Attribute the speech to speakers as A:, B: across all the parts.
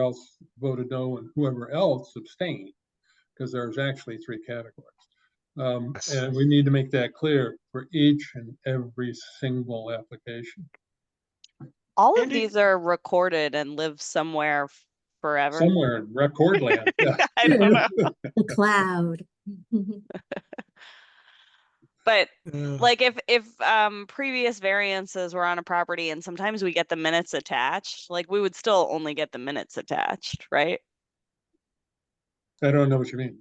A: else voted no and whoever else abstained, because there's actually three categories. Um,
B: Yes.
A: and we need to make that clear for each and every single application.
C: All of
B: Andy-
C: these are recorded and live somewhere f- forever.
A: Somewhere in record land, yeah.
C: I don't know.
D: The cloud.
C: But
B: Uh,
C: like if if um previous variances were on a property and sometimes we get the minutes attached, like we would still only get the minutes attached, right?
A: I don't know what you mean.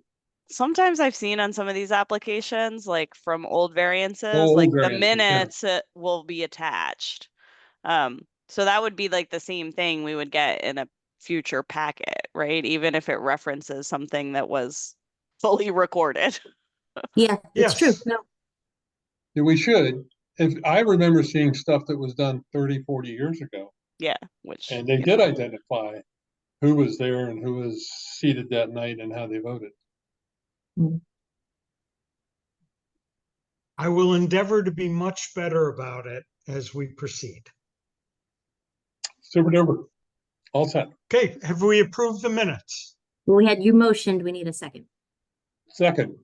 C: Sometimes I've seen on some of these applications, like from old variances,
A: old
C: like the
A: variances, yeah.
C: minutes uh, will be attached. Um, so that would be like the same thing we would get in a future packet, right? Even if it references something that was fully recorded.
D: Yeah, it's true.
B: Yes.
D: No,
A: Yeah, We should, if, I remember seeing stuff that was done 30, 40 years ago,
C: Yeah, which.
A: and they
C: you
A: did
C: know,
A: identify who was there and who was seated that night and how they voted.
B: I will endeavor to be much better about it as we proceed.
A: Super duper. All set.
B: Okay, have we approved the minutes?
D: well, we had you motioned, we need a second.
A: Second,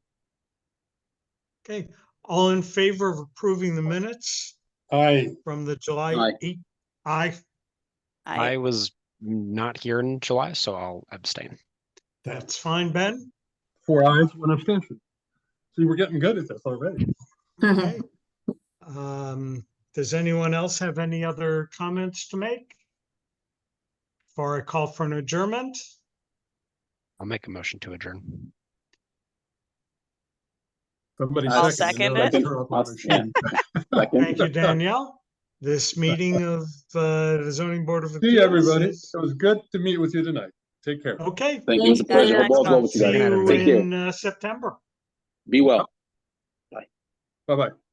B: Okay, all in favor of approving the minutes
A: I,
B: from the July
E: Aye.
B: eight? I,
C: I,
F: I was not here in July, so I'll abstain.
B: that's fine, Ben.
A: four eyes, one abstention. See, we're getting good at this already.
B: Okay. Um, does anyone else have any other comments to make? For a call for an adjournment?
F: I'll make a motion to adjourn.
A: Somebody.
C: I'll
A: seconded
C: second
A: Throw up
E: I'll
A: on the machine.
B: Thank you,
E: Second.
B: Danielle. This meeting of uh, the zoning board of.
A: See you,
B: Appeals
A: everybody.
B: is-
A: It was good to meet with you tonight. Take care.
B: Okay,
E: Thank you. It was a
D: Thank you.
E: pleasure. I'll go with you
B: see
E: guys.
B: you uh,
E: Take care.
B: in uh, September.
E: Be well.
A: Bye-bye.